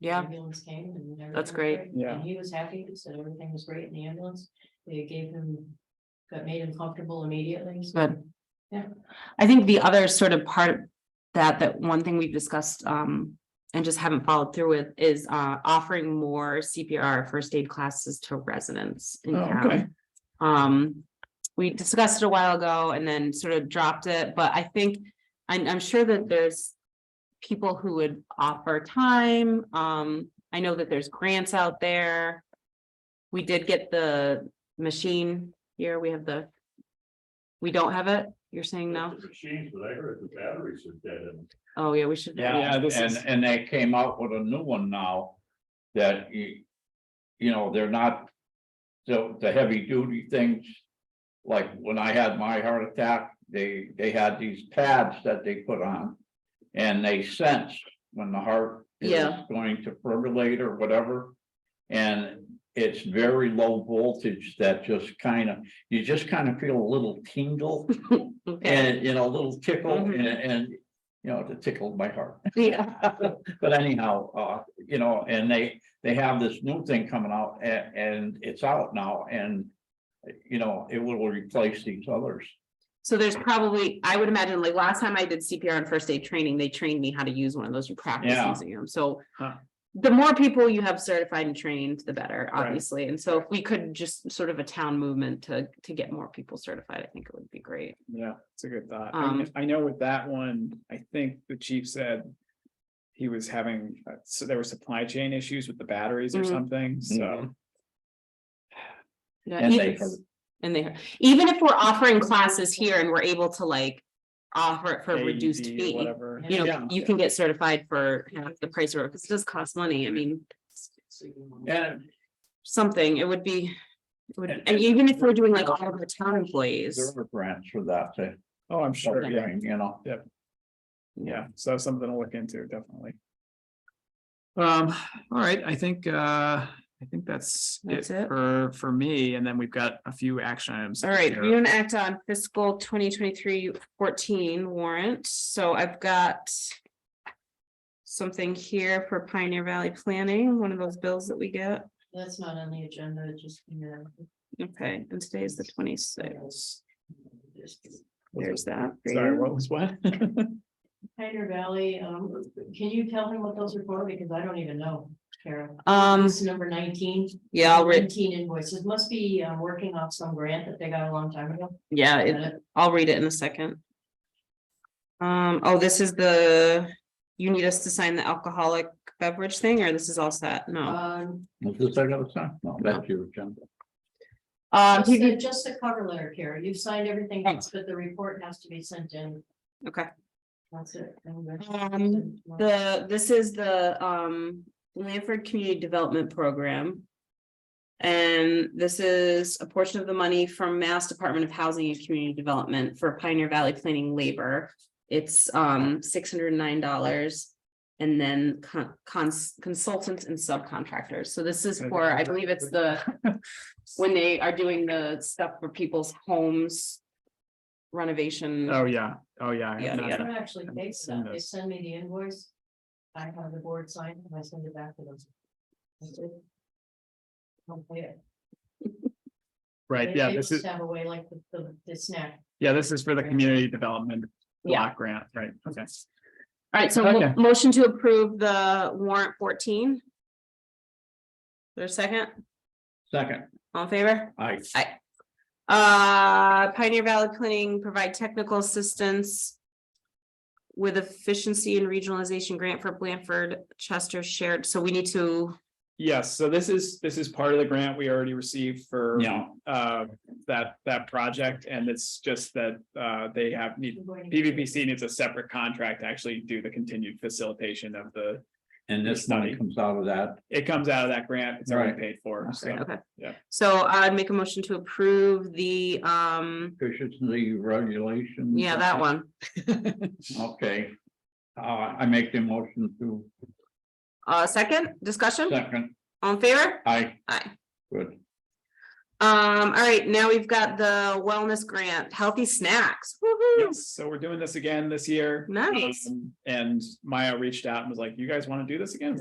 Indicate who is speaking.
Speaker 1: the
Speaker 2: yeah,
Speaker 1: Ambulance came and. everything
Speaker 2: That's
Speaker 1: was
Speaker 2: great.
Speaker 3: Yeah.
Speaker 1: And he was happy, said everything was great in the ambulance, they gave him, got made him comfortable immediately, so.
Speaker 2: good.
Speaker 1: Yeah.
Speaker 2: I think the other sort of part of that, that one thing we've discussed, um, and just haven't followed through with is, uh, offering more CPR first aid classes to residents in
Speaker 3: Oh, okay.
Speaker 2: town. Um, we discussed it a while ago and then sort of dropped it, but I think, I'm, I'm sure that there's people who would offer time. Um, I know that there's grants out there. We did get the machine here. We have the. We don't have it. You're saying no?
Speaker 4: The Machines, but I heard the batteries are dead and
Speaker 2: Oh, yeah, we should.
Speaker 3: Yeah,
Speaker 5: Yeah,
Speaker 3: this is-
Speaker 5: and, and they came out with a new one now that you, you know, they're not the, the heavy duty things. Like when I had my heart attack, they, they had these pads that they put on. And they sense when the heart is
Speaker 2: Yeah.
Speaker 5: going to fibrillate or whatever. And it's very low voltage that just kind of, you just kind of feel a little tingle
Speaker 2: Okay.
Speaker 5: and, you know, a little tickle
Speaker 2: Mhm.
Speaker 5: and, and, you know, it tickled my heart.
Speaker 2: Yeah,
Speaker 5: But anyhow, uh, you know, and they, they have this new thing coming out and, and it's out now and. You know, it will replace these others.
Speaker 2: so there's probably, I would imagine, like last time I did CPR and first aid training, they trained me how to use one of those, you practice
Speaker 5: Yeah.
Speaker 2: using them, so.
Speaker 3: Huh.
Speaker 2: The more people you have certified and trained, the better,
Speaker 5: Right.
Speaker 2: obviously, and so if we could just sort of a town movement to, to get more people certified, I think it would be great.
Speaker 3: Yeah, it's a good thought. I
Speaker 2: Um,
Speaker 3: mean, I know with that one, I think the chief said. He was having, uh, so there were supply chain issues with the batteries or
Speaker 2: Mhm.
Speaker 3: something,
Speaker 5: Mm-hmm.
Speaker 3: so.
Speaker 2: Yeah,
Speaker 5: And they
Speaker 2: even-
Speaker 5: heard-
Speaker 2: And they, heard. even if we're offering classes here and we're able to like offer it for a reduced
Speaker 3: AED E or
Speaker 2: fee.
Speaker 3: Whatever.
Speaker 2: You know,
Speaker 5: Yeah.
Speaker 2: you can get certified for half the price or, because it does cost money, I mean,
Speaker 5: And
Speaker 2: something, it would be. it would-
Speaker 5: And-
Speaker 2: And even if we're doing like all of our town
Speaker 5: there
Speaker 2: employees,
Speaker 5: are grants for that to,
Speaker 3: Oh, I'm sure, yeah,
Speaker 5: you know,
Speaker 3: yeah, so that's something to look into, definitely. Um, all right, I think, uh, I think that's it
Speaker 2: That's it.
Speaker 3: for, for me, and then we've got a few action items.
Speaker 2: all right,
Speaker 3: here.
Speaker 2: we're gonna act on fiscal 2023 14 warrant, so I've got. Something here for Pioneer Valley Planning, one of those bills that we get,
Speaker 1: That's not on the agenda, it just, you know.
Speaker 2: okay, and today is the twenty-sixth,
Speaker 1: just-
Speaker 2: there's that. for
Speaker 3: Sorry,
Speaker 2: you.
Speaker 3: what was what?
Speaker 1: Pioneer Valley, um, can you tell him what those are for? Because I don't even know, Carol.
Speaker 2: Um,
Speaker 1: This is number nineteen.
Speaker 2: yeah, I'll read,
Speaker 1: Nineteen invoices, must be, uh, working off some grant that they got a long time ago.
Speaker 2: yeah, it- I'll read it in a second. Um, oh, this is the, you need us to sign the alcoholic beverage thing, or this is all set? No.
Speaker 1: Um,
Speaker 5: is this I got sign? No, that's your agenda.
Speaker 2: Um,
Speaker 1: Just the- Just the cover letter, Kara. You've signed everything else, but the report has to be sent in.
Speaker 2: okay,
Speaker 1: That's it. And that's-
Speaker 2: um, the, this is the, um, Lanford Community Development Program. And this is a portion of the money from Mass Department of Housing and Community Development for Pioneer Valley Planning Labor. It's, um, six hundred and nine dollars. And then con- cons- consultants and subcontractors. So this is for, I believe it's the, when they are doing the stuff for people's homes renovation.
Speaker 3: Oh, yeah, oh, yeah. I
Speaker 2: Yeah,
Speaker 3: have
Speaker 1: I
Speaker 3: not-
Speaker 1: don't actually pay
Speaker 3: Send
Speaker 1: stuff. They
Speaker 3: us.
Speaker 1: send me the invoice. I have the board sign it and I send it back to them. That's it. Don't pay it.
Speaker 3: Right,
Speaker 1: They-
Speaker 3: yeah,
Speaker 1: they
Speaker 3: this
Speaker 1: must
Speaker 3: is,
Speaker 1: Have a way like the- the, the snack.
Speaker 3: yeah, this is for the community development
Speaker 2: Yeah.
Speaker 3: block grant, right, okay.
Speaker 2: All right, so mo-
Speaker 3: Okay.
Speaker 2: motion to approve the warrant fourteen. There's a second,
Speaker 5: Second,
Speaker 2: all in favor?
Speaker 5: I,
Speaker 2: Uh, Pioneer Valley Planning provide technical assistance. With efficiency and regionalization grant for Blanford Chester shared, so we need to,
Speaker 3: Yes, so this is, this is part of the grant we already received for.
Speaker 5: yeah,
Speaker 3: Uh, that, that project, and it's just that, uh, they have need,
Speaker 1: You're going to-
Speaker 3: PVPC needs a separate contract to actually do the continued facilitation of the.
Speaker 5: and this money comes out of that.
Speaker 3: It comes out of that grant, it's already
Speaker 5: Right.
Speaker 3: paid for, so,
Speaker 2: okay.
Speaker 3: Yeah.
Speaker 2: So I'd make a motion to approve the, um,
Speaker 5: Efficiency regulation.
Speaker 2: yeah, that one.
Speaker 5: Okay. Uh, I make the motion to
Speaker 2: Uh, second, discussion,
Speaker 5: second,
Speaker 2: all in favor?
Speaker 5: I,
Speaker 2: Aye.
Speaker 5: good.
Speaker 2: Um, all right, now we've got the wellness grant, healthy snacks. Woo-hoo.
Speaker 3: yes, so we're doing this again this year.
Speaker 2: Nice.
Speaker 3: Um, And Maya reached out and was like, you guys want to do this again?